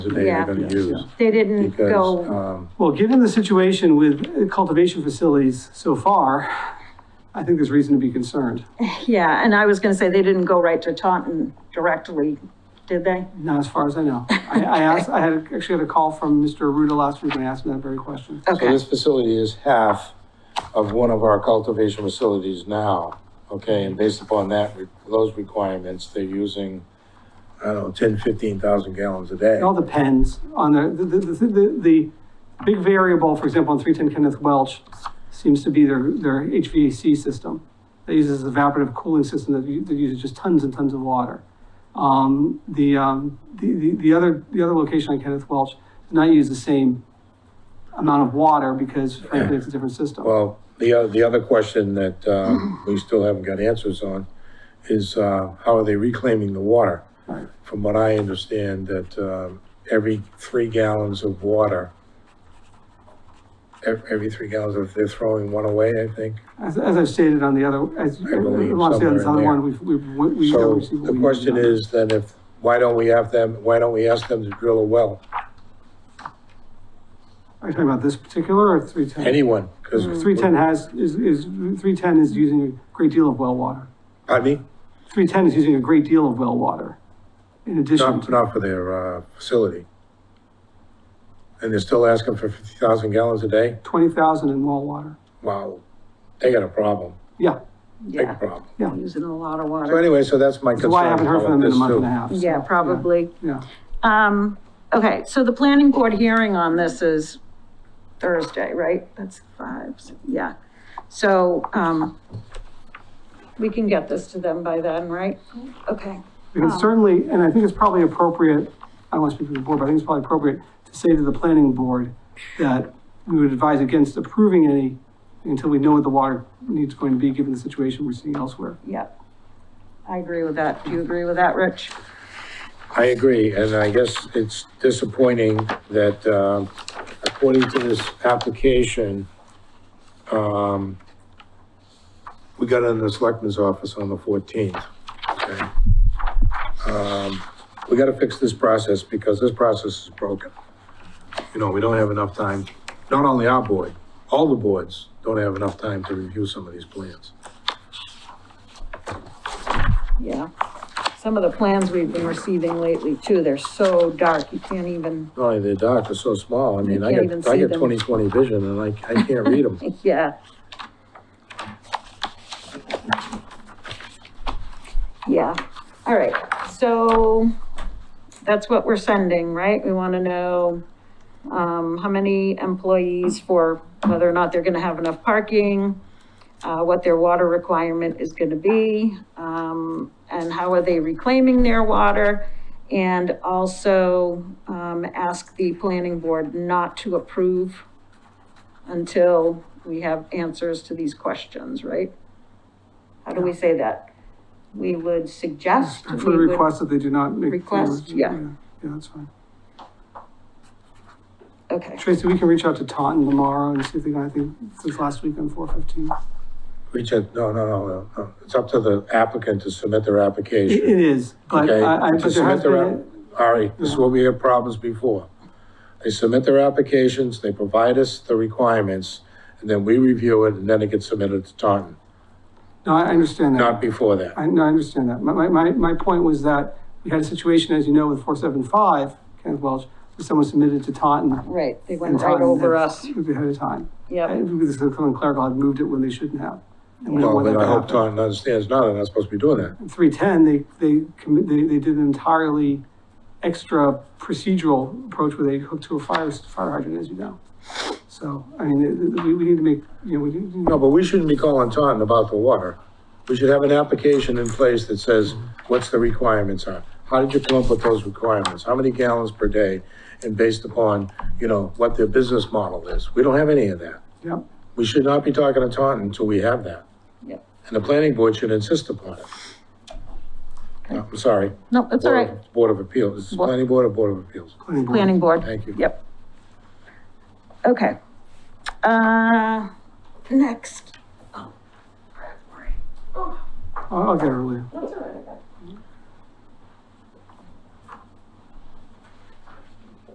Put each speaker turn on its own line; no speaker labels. they
Yeah.
are gonna use.
They didn't
Because,
go,
um,
Well, given the situation with cultivation facilities so far, I think there's reason to be concerned.
uh,
yeah, and I was gonna say, they didn't go right to Taunton directly, did they?
Not as far as I know. I, I asked, I had, actually had a call from Mr. Ruda last week and I asked him that very question.
so
Okay,
this facility is half of one of our cultivation facilities now, okay? And based upon that, re- those requirements, they're using, I don't know, ten, fifteen thousand gallons a day.
It all depends on the, the, the, the, the big variable, for example, on three ten Kenneth Welch seems to be their, their HVAC system. That uses an evaporative cooling system that, u- that uses just tons and tons of water. Um, the, um, the, the, the other, the other location on Kenneth Welch does not use the same amount of water because frankly, it's a different system.
Well, the, o- the other question that,
Mm-hmm.
um, we still haven't got answers on is, uh, how are they reclaiming the water?
Right.
From what I understand, that, um, every three gallons of water, ev- every three gallons, of they're throwing one away, I think.
As, as I've stated on the other, as,
I believe
I want to say on this
somewhere
other
in
one, we've, we've, we- we.
So
we see what
the
we
question
need to know.
is then if, why don't we have them, why don't we ask them to drill a well?
Are you talking about this particular or three ten?
Anyone, because.
310 has, is, is, 310 is using a great deal of well water.
Pardon me?
310 is using a great deal of well water. In addition,
Not,
to
not for their, uh, facility. And they're still asking for fifty thousand gallons a day?
20,000 in well water.
Wow, they got a problem,
Yeah,
big
yeah,
problem.
using a lot of
So
water,
anyway, so that's my
that's
concern.
why I haven't heard
about
from them in a
this
month
too.
and a half. so,
yeah, probably.
Yeah,
Um, okay, so the planning board hearing on this is Thursday, right? That's five, so- yeah. So, um, we can get this to them by then, right? Okay,
we can certainly, and I think it's probably appropriate, I don't want to speak for the board, but I think it's probably appropriate to say to the planning board that we would advise against approving any until we know what the water needs going to be, given the situation we're seeing elsewhere.
yep. I agree with that. Do you agree with that, Rich?
I agree, and I guess it's disappointing that, um, according to this application, um, we got in the selectman's office on the fourteenth, okay? Um, we gotta fix this process because this process is broken. You know, we don't have enough time, not only our board, all the boards don't have enough time to review some of these plans.
Yeah. Some of the plans we've been receiving lately too, they're so dark, you can't even,
Not only the dock is so small, I mean, I
can't even
got, I
see
got
them.
twenty-twenty vision and I, I can't read them.
yeah. Yeah, all right, so that's what we're sending, right? We want to know, um, how many employees for whether or not they're going to have enough parking, uh, what their water requirement is going to be, um, and how are they reclaiming their water? And also, um, ask the planning board not to approve until we have answers to these questions, right? How do we say that? We would suggest. we
Respectfully
would-
request that they do not make.
Request, yeah.
Yeah, that's fine.
Okay,
Tracy, we can reach out to Taunton tomorrow and see if they got anything since last week on four fifteen.
Reach out, no, no, no, no, no, it's up to the applicant to submit their
It
application.
it is, but
Okay,
I, I,
to
but there
submit
has
their
been,
app- All right, this is where we had problems before. They submit their applications, they provide us the requirements, and then we review it, and then it gets submitted to Taunton,
no, I understand
not
that.
before that.
I, no, I understand that. My, my, my, my point was that we had a situation, as you know, with four seven five, Kenneth Welch, where someone submitted to Taunton.
right, they
and
went right
Taunton
over
had-
us,
Ahead of time.
yep.
And this is the Cleveland Clerical had moved it when they shouldn't have. And we don't
Well,
want
then
that
I
to
hope
happen.
Taunton understands now they're not supposed to be doing that.
three ten, they, they commit, they, they did an entirely extra procedural approach where they hooked to a fire, fire hydrant, as you know. So, I mean, th- th- we, we need to make, you know, we need to.
No, but we shouldn't be calling Taunton about the water. We should have an application in place that says, what's the requirements are? How did you come up with those requirements? How many gallons per day? And based upon, you know, what their business model is. We don't have any of that.
Yep,
We should not be talking to Taunton until we have that.
Yep.
And the planning board should insist upon it. No, I'm sorry.
No, that's all
Board
right,
of- Board of Appeals. Is this
What?
planning board or Board of Appeals?
planning board.
planning board.
Thank you.
Yep. Okay. Uh, next.
I'll, I'll get it earlier.
That's all right.